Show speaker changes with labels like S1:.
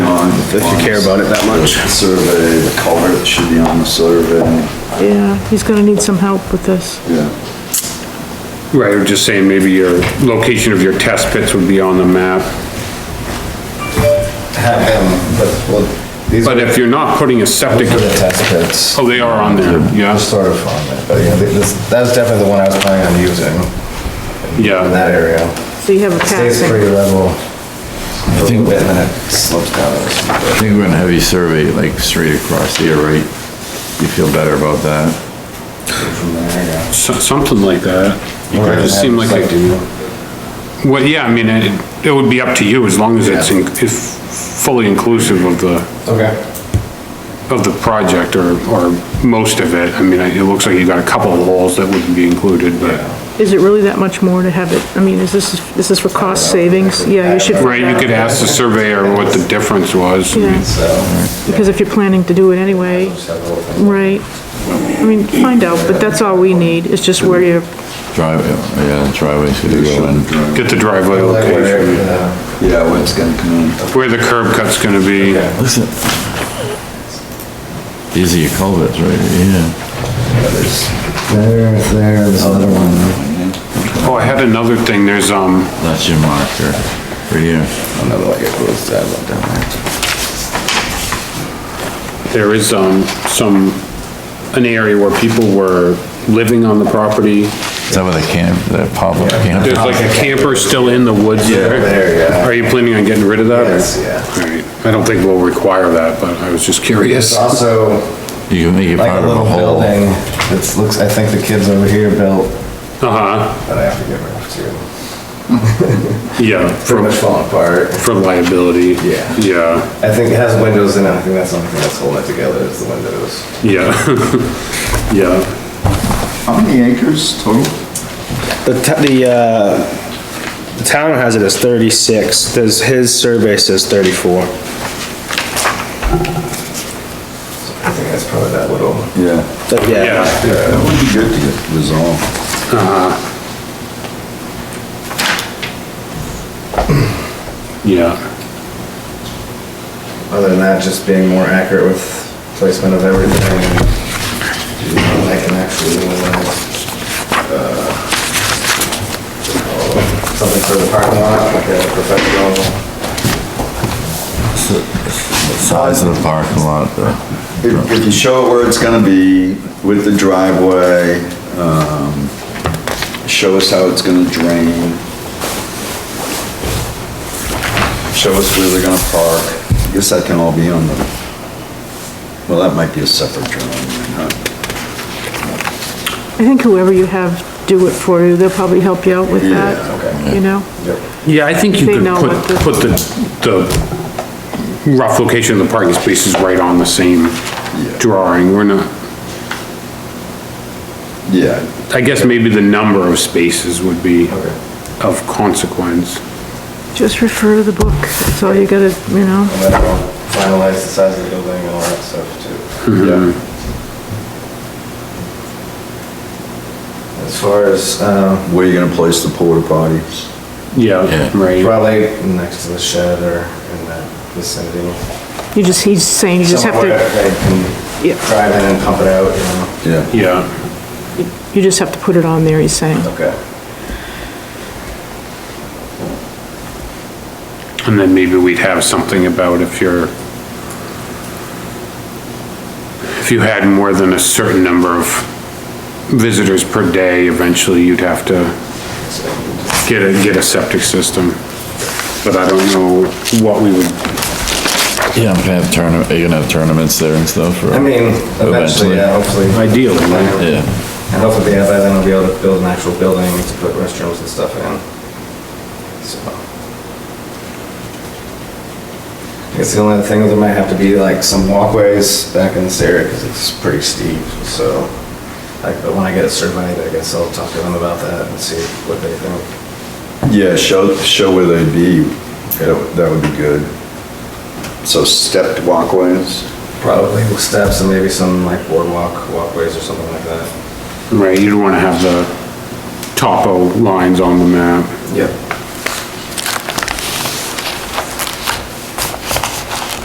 S1: if you care about it that much.
S2: Survey, the culvert should be on the survey,
S3: Yeah, he's gonna need some help with this.
S2: yeah.
S4: Right, I'm just saying maybe your location of your test pits would be on the map.
S5: Have them, but, well, these are
S4: But if you're not putting a septic,
S5: these are the test pits.
S4: oh, they are on there,
S5: They're
S4: yeah,
S5: Sort of on it, but yeah, th- this, that was definitely the one I was planning on using in
S4: yeah.
S5: that area.
S3: So you have a
S5: Stays
S3: passing.
S5: pretty level. I think. And then it slopes down. a little.
S6: I think we're gonna have you survey like straight across here, right? You feel better about that?
S4: So- Something like that.
S5: Right.
S4: It just seemed like, I do. well, yeah, I mean, it, it would be up to you as long as it's, in- it's fully inclusive of the,
S5: Okay.
S4: of the project or, or most of it. I mean, it looks like you got a couple of holes that wouldn't be included, but,
S3: Is it really that much more to have it? I mean, is this, is this for cost savings? Yeah, you should. find
S4: right, you could
S3: out.
S4: ask the surveyor what the difference was.
S3: Yeah,
S5: So,
S3: because if you're planning to do it anyway,
S5: just have a little thing.
S3: right? I mean, find out, but that's all we need, is just where you're,
S6: Driveway, yeah, driveway's gonna go in.
S4: Get the driveway
S5: Like where,
S4: location,
S5: uh,
S2: Yeah, when it's gonna come in.
S4: where the curb cut's gonna be.
S6: Listen. These are your culverts, right? Yeah.
S5: There, there, this other one.
S4: Oh, I had another thing, there's, um,
S6: That's your marker, right here.
S5: Another like it goes down, down there.
S4: there is, um, some, an area where people were living on the property.
S6: Is that where the camp, that pop-up camp?
S4: There's like a camper still in the woods there.
S5: there, yeah.
S4: Are you planning on getting rid of that? or-
S5: Yes, yeah.
S4: All right, I don't think we'll require that, but I was just
S5: It's
S4: curious.
S5: also
S6: You can make it
S5: like
S6: part
S5: a
S6: of a
S5: little
S6: whole.
S5: building that's looks, I think the kids over here built,
S4: Uh-huh,
S5: that I have to get rid of too.
S4: yeah,
S5: Pretty
S4: for,
S5: much falling apart.
S4: for liability.
S5: Yeah.
S4: Yeah,
S5: I think it has windows in it. I think that's the only thing that's holding it together is the windows.
S4: yeah, yeah.
S2: How many acres total?
S7: The, t- the, uh, the town has it as thirty-six, there's, his survey says thirty-four.
S5: I think that's probably that little.
S2: Yeah.
S7: But yeah,
S4: Yeah,
S2: Yeah, that would be good to get resolved.
S4: yeah,
S5: Other than that, just being more accurate with placement of everything. and, you know, I can actually, do a little, uh, something for the parking lot, like a professional.
S6: Size of the parking lot, the
S2: If, if you show it where it's gonna be with the driveway, um, show us how it's gonna drain. Show us where they're gonna park. I guess that can all be on the, well, that might be a separate drawing, huh?
S3: I think whoever you have do it for you, they'll probably help you out with that, you know?
S4: yeah, I think you
S3: They
S4: could
S3: know
S4: put,
S3: what the-
S4: put the, the rough location of the parking spaces right on the same drawing, we're not,
S2: Yeah,
S4: I guess maybe the number of spaces would be of consequence.
S3: Just refer to the book, that's all you gotta, you know?
S5: And then I'll finalize the size of the building and all that stuff too. As far as, um,
S2: where you gonna place the porta potties?
S6: Yeah.
S4: Yeah, right,
S5: probably next to the shed or in that vicinity.
S3: You just, he's saying you just have
S5: Somewhere
S3: to,
S5: They can
S3: Yeah.
S5: drive in and pump it out, you know?
S2: Yeah.
S4: yeah,
S3: you just have to put it on there, he's saying.
S5: Okay.
S4: and then maybe we'd have something about if you're, if you had more than a certain number of visitors per day, eventually you'd have to
S5: uh,
S4: get a, get a septic system. But I don't know what we would,
S6: Yeah, I'm gonna have tournament, are you gonna have tournaments there and stuff? or-
S5: I mean, eventually, yeah, hopefully.
S4: Ideally, right?
S6: Yeah.
S5: And hopefully by then I'll be able to build an actual building to put restrooms and stuff in. So. I guess the only other thing, there might have to be like some walkways back in this area, because it's pretty steep, so. Like, but when I get it surveyed, I guess I'll talk to them about that and see what they think.
S2: Yeah, show, show where they'd be, that would- that would be good. So stepped walkways?
S5: Probably steps and maybe some like boardwalk, walkways or something like that.
S4: right, you'd wanna have the topo lines on the map.
S5: Yep.